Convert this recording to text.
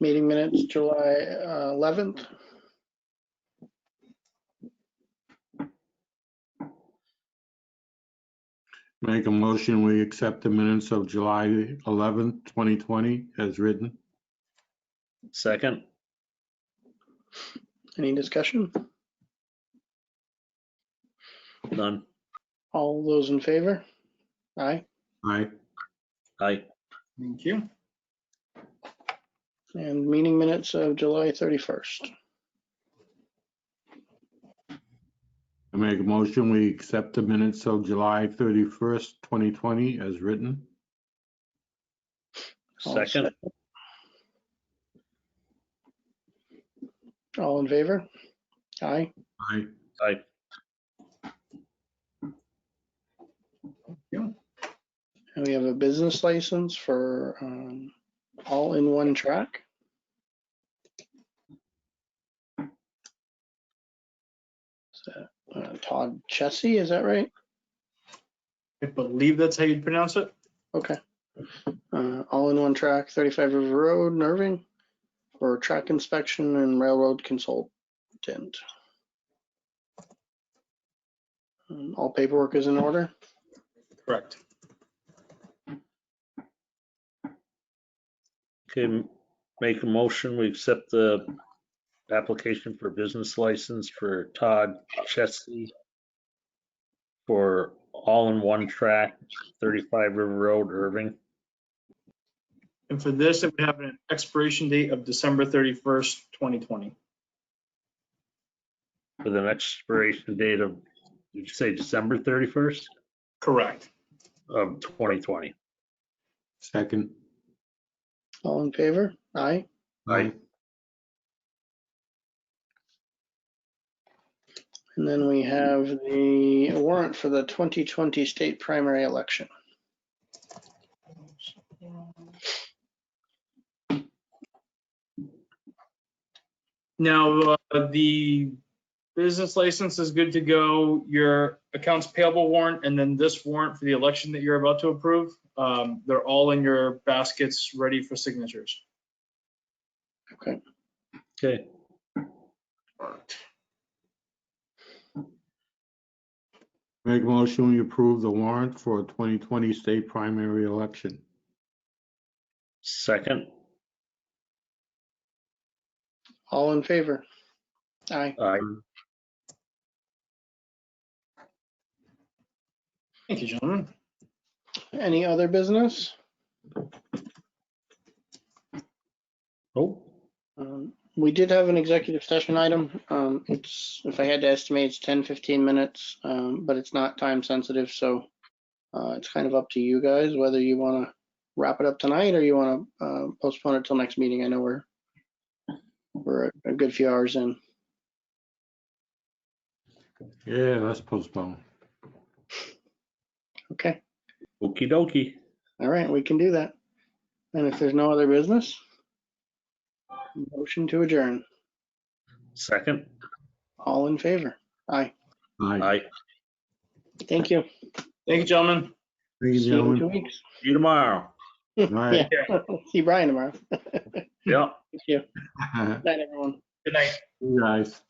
Meeting minutes, July uh, 11th. Make a motion, we accept the minutes of July 11th, 2020 as written. Second, Any discussion? none. All those in favor? Aye. Aye. Aye. Thank you. And meeting minutes of July 31st. I make a motion, we accept the minutes of July 31st, 2020 as written. All Second, All in favor? Aye. Aye. aye. And we have a business license for um, All in One Track. Is that, uh, Todd Chessie, is that right? I believe that's how you'd pronounce it. Okay. Uh, all in one track, thirty-five River Road, in Irving, for track inspection and railroad consultant. Um, All paperwork is in order. Correct. Okay, m- make a motion, we accept the application for business license for Todd Chesky for all-in-one track, 35 River Road, Irving. And for this, it would have an expiration date of December 31st, 2020. With an expiration date of, did you say December 31st Correct. of 2020? Second. All in favor? Aye. Aye. And then we have the warrant for the twenty twenty state primary election. Now, uh, the business license is good to go, your accounts payable warrant, and then this warrant for the election that you're about to approve. um, They're all in your baskets, ready for signatures. Okay, Make a motion, we approve the warrant for 2020 state primary election. second, All in favor? Aye. aye. Thank you, gentlemen. Any other business? Oh, Um, We did have an executive session item. Um, It's, if I had to estimate, it's 10, 15 minutes, um, but it's not time sensitive, so uh, it's kind of up to you guys whether you want to wrap it up tonight or you want to postpone it till next meeting. I know we're, we're a- a good few hours in. Yeah, let's postpone. Okay, okey dokey. all right, we can do that. And if there's no other business, motion to adjourn. Second, All in favor? Aye. Aye. aye. Thank you. Thank you, gentlemen. Thank you, See you in two gentlemen. weeks. See you tomorrow. Aye. See Brian tomorrow. Yeah. Thank you. Night, everyone. Good night. You guys.